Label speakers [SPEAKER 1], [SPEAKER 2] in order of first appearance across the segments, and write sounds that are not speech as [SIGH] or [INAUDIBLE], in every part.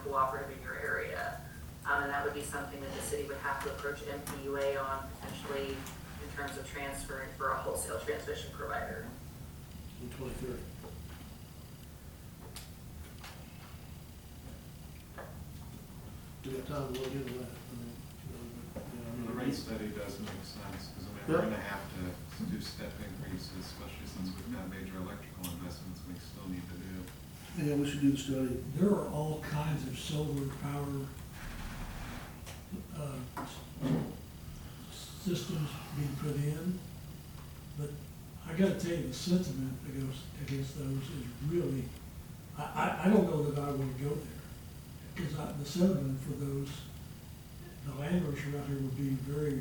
[SPEAKER 1] cooperative in your area. Um, and that would be something that the city would have to approach MPUA on potentially in terms of transferring for a wholesale transmission provider.
[SPEAKER 2] the twenty-third. Do we have time to look into that? I mean, you know,
[SPEAKER 3] The
[SPEAKER 2] we-
[SPEAKER 3] rate study does make sense, because I mean, we're gonna have to do step increases, especially since we've got major electrical investments we still need to do.
[SPEAKER 2] Yeah, we should do the study.
[SPEAKER 4] There are all kinds of solar power, uh, s- systems being put in, but I gotta tell you, the sentiment against, against those is really, I, I, I don't know that I wanna go there. Cause I, the sentiment for those, the landowners around here would be very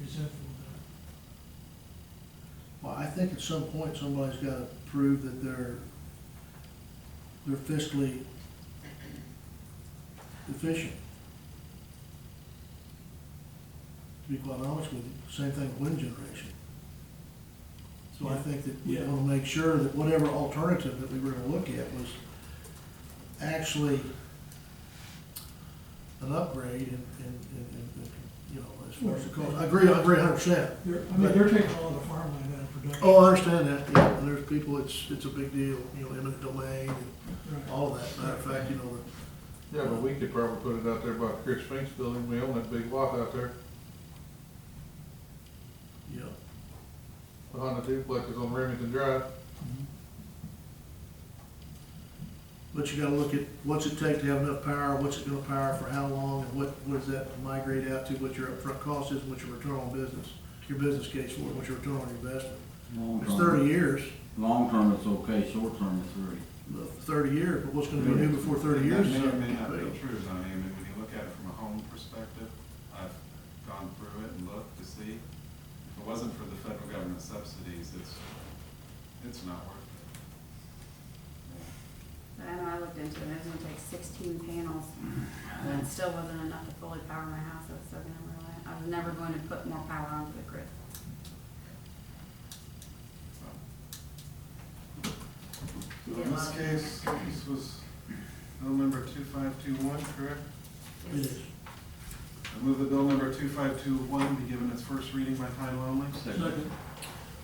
[SPEAKER 4] resentful of
[SPEAKER 2] Well, I think at some point, somebody's gotta prove that they're, they're fiscally efficient. To be quite honest with you, same thing with wind generation. So I think that we
[SPEAKER 4] Yeah.
[SPEAKER 2] wanna make sure that whatever alternative that we were gonna look at was actually an upgrade and, and, and, and, you know, as far as the cost. I agree, I agree a hundred percent.
[SPEAKER 4] that. They're, I mean, they're taking all the farmland out of production.
[SPEAKER 2] Oh, I understand that, yeah, and there's people, it's, it's a big deal, you know, eminent domain and
[SPEAKER 4] Right.
[SPEAKER 2] all that, matter of fact, you know,
[SPEAKER 5] Yeah, but we could probably put it out there by Chris Fink's building, we own that big lot out there,
[SPEAKER 2] the- you know.
[SPEAKER 5] behind the duplexes on Remington Drive.
[SPEAKER 2] But you gotta look at, what's it take to have enough power, what's it gonna power for how long, and what, what does that migrate out to, what your upfront cost is, and what your return on business, your business case for it, what your return on your investment.
[SPEAKER 6] Long
[SPEAKER 2] It's
[SPEAKER 6] term,
[SPEAKER 2] thirty years,
[SPEAKER 6] long term it's okay, short term it's really,
[SPEAKER 2] uh, thirty years, but what's gonna be new before thirty
[SPEAKER 3] That
[SPEAKER 2] years? is
[SPEAKER 3] may or
[SPEAKER 2] something
[SPEAKER 3] may
[SPEAKER 2] to
[SPEAKER 3] not be
[SPEAKER 2] debate.
[SPEAKER 3] true, I mean, when you look at it from a home perspective, I've gone through it and looked to see. If it wasn't for the federal government subsidies, it's, it's not worth it. Yeah.
[SPEAKER 7] I know I looked into it, and it was gonna take sixteen panels, and it still wasn't enough to fully power my house, I was still gonna rely, I was never going to put more power onto the grid.
[SPEAKER 3] So,
[SPEAKER 5] So in this case, this was bill number two five two one, correct?
[SPEAKER 2] It is.
[SPEAKER 3] I move that bill number two five two one be given its first reading by title only.
[SPEAKER 2] Second.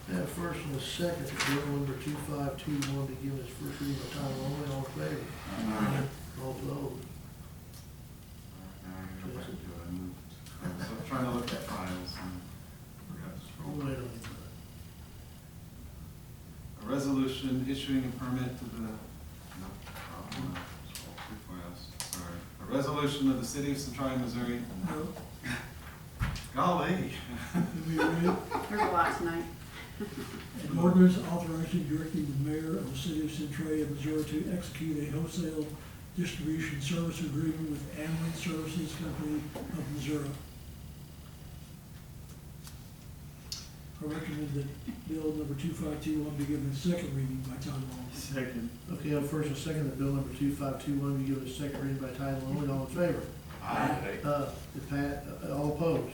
[SPEAKER 2] That first and the second, bill number two five two one, to give its first reading by title only, all in favor? [LAUGHS] All opposed?
[SPEAKER 3] Now I gotta go back to it. I moved. I was trying to look at files and forgot to
[SPEAKER 2] All
[SPEAKER 3] scroll.
[SPEAKER 2] right on
[SPEAKER 3] A resolution issuing a permit to the, no, oh, no, scroll through files, sorry. A resolution of the city of Centralia, Missouri,
[SPEAKER 4] No,
[SPEAKER 3] golly,
[SPEAKER 4] it'd be really-
[SPEAKER 7] There's a lot tonight.
[SPEAKER 4] An ordinance authorizing directing the mayor of the city of Centralia, Missouri to execute a wholesale distribution service agreement with Amlin Services Company of Missouri. I recommend that bill number two five two one be given its second reading by title only.
[SPEAKER 2] Second. Okay, on first and second, that bill number two five two one, be given its second reading by title only, all in favor?
[SPEAKER 5] Aye.
[SPEAKER 2] Uh, it pa, uh, all opposed?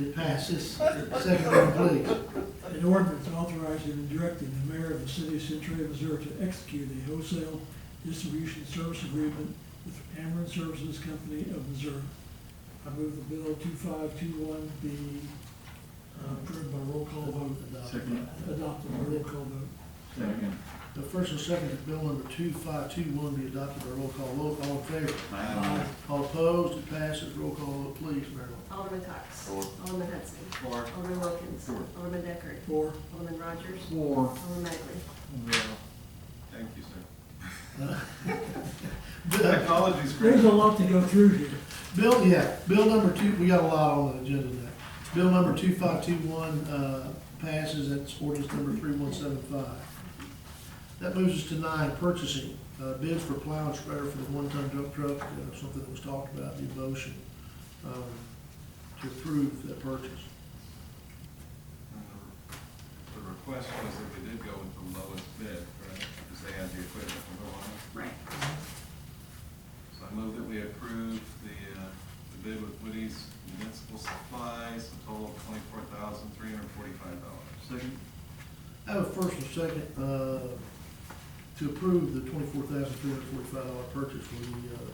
[SPEAKER 2] It passes. Second reading, please.
[SPEAKER 4] An ordinance authorizing and directing the mayor of the city of Centralia, Missouri to execute a wholesale distribution service agreement with Ameren Services Company of Missouri. I move the bill two five two one be uh, approved by roll call vote,
[SPEAKER 2] Second.
[SPEAKER 4] adopted by roll call vote.
[SPEAKER 6] second.
[SPEAKER 2] The first and second, that bill number two five two one, be adopted by roll call vote, all in favor?
[SPEAKER 6] Aye.
[SPEAKER 2] All opposed? It passes. Roll call vote, please, Marilyn.
[SPEAKER 8] Alderman Cox.
[SPEAKER 5] Four.
[SPEAKER 8] Alderman Hudson.
[SPEAKER 3] Four.
[SPEAKER 8] Alderman Wilkins.
[SPEAKER 3] Four.
[SPEAKER 8] Alderman Deckard.
[SPEAKER 4] Four,
[SPEAKER 8] Alderman Rogers.
[SPEAKER 6] Four.
[SPEAKER 8] Alderman Magley.
[SPEAKER 3] thank you, sir. [LAUGHS]
[SPEAKER 2] Bill-
[SPEAKER 3] Technology's great.
[SPEAKER 4] there's a lot to go through here.
[SPEAKER 2] Bill, yeah, bill number two, we got a lot on the agenda today. Bill number two five two one, uh, passes, that's ordinance number three one seven five. That moves us to nine, purchasing, uh, bids for plow and spreader for the one-ton dump truck, uh, something that was talked about, in the motion, um, to approve that purchase.
[SPEAKER 3] And the- The request was that we did go with the lowest bid, correct? Because they had the equipment to go on it.
[SPEAKER 7] Right.
[SPEAKER 3] So I move that we approve the, uh, the bid with Woody's Municipal Supplies, a total of twenty-four thousand, three hundred and forty-five dollars.
[SPEAKER 6] Second.
[SPEAKER 2] I have a first and second, uh, to approve the twenty-four thousand three hundred forty-five dollar purchase for the, uh,